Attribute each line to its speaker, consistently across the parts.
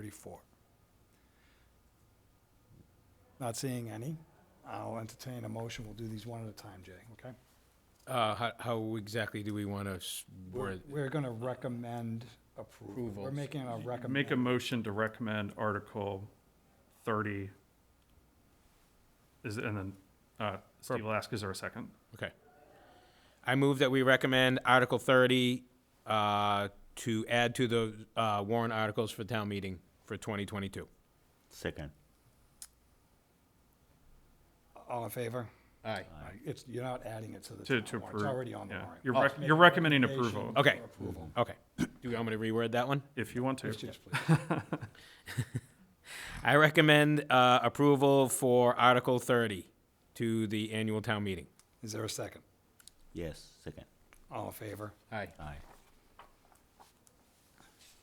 Speaker 1: thirty-four. Not seeing any. I'll entertain a motion. We'll do these one at a time, Jay, okay?
Speaker 2: Uh, how, how exactly do we want to word?
Speaker 1: We're gonna recommend approval. We're
Speaker 2: Approvals.
Speaker 1: making a
Speaker 3: Make a
Speaker 1: recommend.
Speaker 3: motion to recommend Article thirty. Is, and then, uh, Steve Lask, is there a second?
Speaker 2: Okay. I move that we recommend Article thirty, uh, to add to the, uh, warrant articles for town meeting for twenty twenty-two.
Speaker 4: Second.
Speaker 1: All in favor?
Speaker 2: Aye.
Speaker 1: It's, you're not adding it to the
Speaker 3: To-
Speaker 1: town
Speaker 3: to
Speaker 1: warrant.
Speaker 3: approve,
Speaker 1: It's already on the
Speaker 3: yeah.
Speaker 1: warrant.
Speaker 3: You're
Speaker 1: Just
Speaker 3: rec-
Speaker 1: make
Speaker 3: you're
Speaker 1: a
Speaker 3: recommending
Speaker 1: recommendation
Speaker 3: approval.
Speaker 1: for
Speaker 2: Okay.
Speaker 1: Approval.
Speaker 2: Okay. Do you want me to reword that one?
Speaker 3: If you want to.
Speaker 1: Yes, yes, please.
Speaker 2: I recommend, uh, approval for Article thirty to the annual town meeting.
Speaker 1: Is there a second?
Speaker 4: Yes, second.
Speaker 1: All in favor?
Speaker 2: Aye.
Speaker 4: Aye.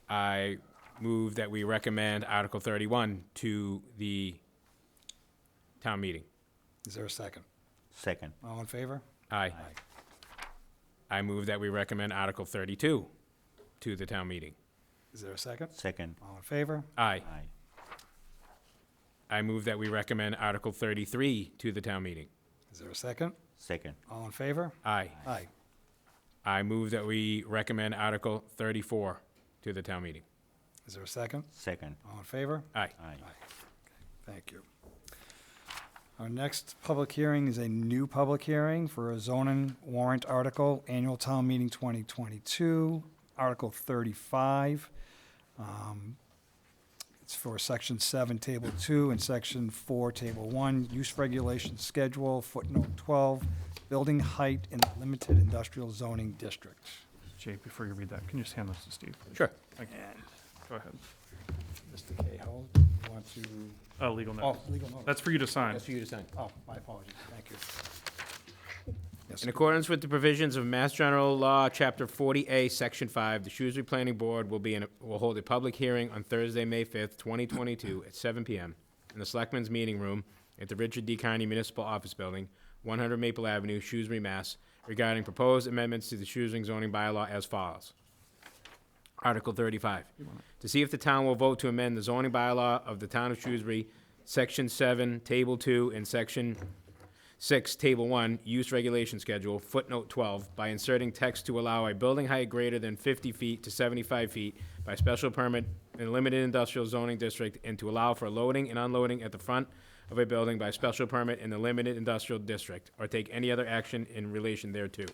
Speaker 2: I move that we recommend Article thirty-one to the town meeting.
Speaker 1: Is there a second?
Speaker 4: Second.
Speaker 1: All in favor?
Speaker 2: Aye. I move that we recommend Article 32 to the town meeting.
Speaker 1: Is there a second?
Speaker 4: Second.
Speaker 1: All in favor?
Speaker 2: Aye.
Speaker 4: Aye.
Speaker 2: I move that we recommend Article 33 to the town meeting.
Speaker 1: Is there a second?
Speaker 4: Second.
Speaker 1: All in favor?
Speaker 2: Aye.
Speaker 1: Aye.
Speaker 2: I move that we recommend Article 34 to the town meeting.
Speaker 1: Is there a second?
Speaker 4: Second.
Speaker 1: All in favor?
Speaker 2: Aye.
Speaker 4: Aye.
Speaker 1: Thank you. Our next public hearing is a new public hearing for a zoning warrant article, annual town meeting 2022, Article 35. Um, It's for Section 7, Table 2, and Section 4, Table 1, use regulation schedule, footnote 12, building height in limited industrial zoning district.
Speaker 3: Jake, before you read that, can you just hand this to Steve?
Speaker 2: Sure.
Speaker 3: Thank you. Go ahead.
Speaker 1: Mr. Cahill, do you want to,
Speaker 3: Uh, legal
Speaker 1: oh,
Speaker 3: notice.
Speaker 1: legal notice.
Speaker 3: That's for you to sign.
Speaker 2: you to sign.
Speaker 1: Oh, my apologies, thank you. Yes,
Speaker 2: In accordance with the provisions of Mass General Law, Chapter 40A, Section 5, the Shrewsbury Planning Board will be in, will hold a public hearing on Thursday, May 5th, 2022, at 7 PM in the Selectmen's Meeting Room at the Richard D. Carney Municipal Office Building, 100 Maple Avenue, Shrewsbury, Mass, regarding proposed amendments to the Shrewsbury zoning bylaw as follows. Article 35, to see if the town will vote to amend the zoning bylaw of the town of Shrewsbury, Section 7, Table 2, and Section 6, Table 1, Use Regulation Schedule, footnote 12, by inserting text to allow a building height greater than 50 feet to 75 feet by special permit in a limited industrial zoning district and to allow for loading and unloading at the front of a building by special permit in the limited industrial district, or take any other action in relation thereto.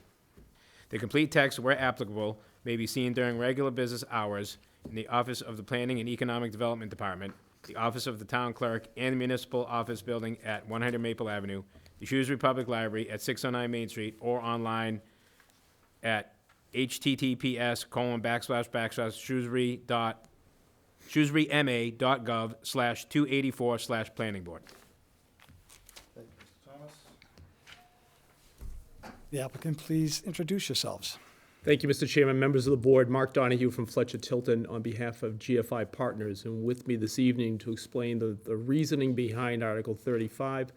Speaker 2: The complete text, where applicable, may be seen during regular business hours in the office of the Planning and Economic Development Department, the office of the Town Clerk, and the Municipal Office Building at 100 Maple Avenue, the Shrewsbury Public Library at 609 Main Street, or online at https colon backslash backslash shrewsbury dot shrewsburyma.gov slash 284 slash planning board.
Speaker 1: Thank you, Mr. Thomas. The applicant, please introduce yourselves.
Speaker 5: Thank you, Mr. Chairman, members of the board. Mark Donahue from Fletcher Tilton on behalf of GFI Partners. And with me this evening to explain the, the reasoning behind Article 35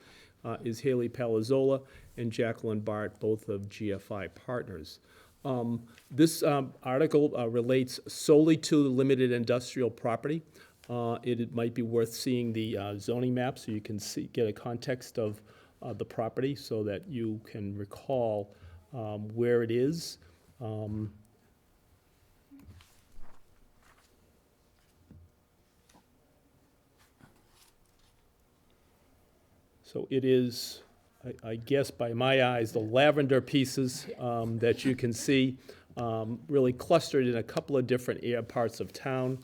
Speaker 5: uh, is Haley Palazzola and Jacqueline Bart, both of GFI Partners. Um, This um, article uh, relates solely to limited industrial property. Uh, It it might be worth seeing the uh, zoning map so you can see, get a context of uh, the property so that you can recall um, where it is. Um, So it is, I- I guess by my eyes, the lavender pieces um, that you can see um, really clustered in a couple of different air parts of town.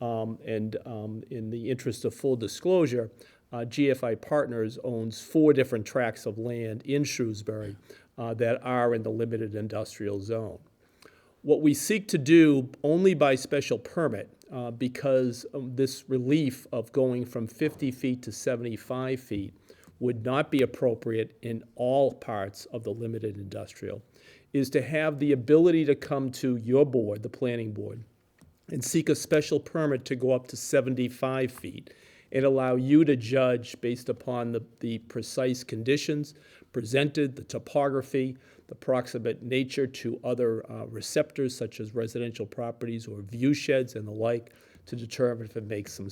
Speaker 5: Um, And um, in the interest of full disclosure, uh, GFI Partners owns four different tracts of land in Shrewsbury uh, that are in the limited industrial zone what we seek to do only by special permit, uh, because of this relief of going from 50 feet to 75 feet would not be appropriate in all parts of the limited industrial, is to have the ability to come to your board, the planning board, and seek a special permit to go up to 75 feet and allow you to judge based upon the, the precise conditions presented, the topography, the proximate nature to other uh, receptors such as residential properties or view sheds and the like, to determine if it makes some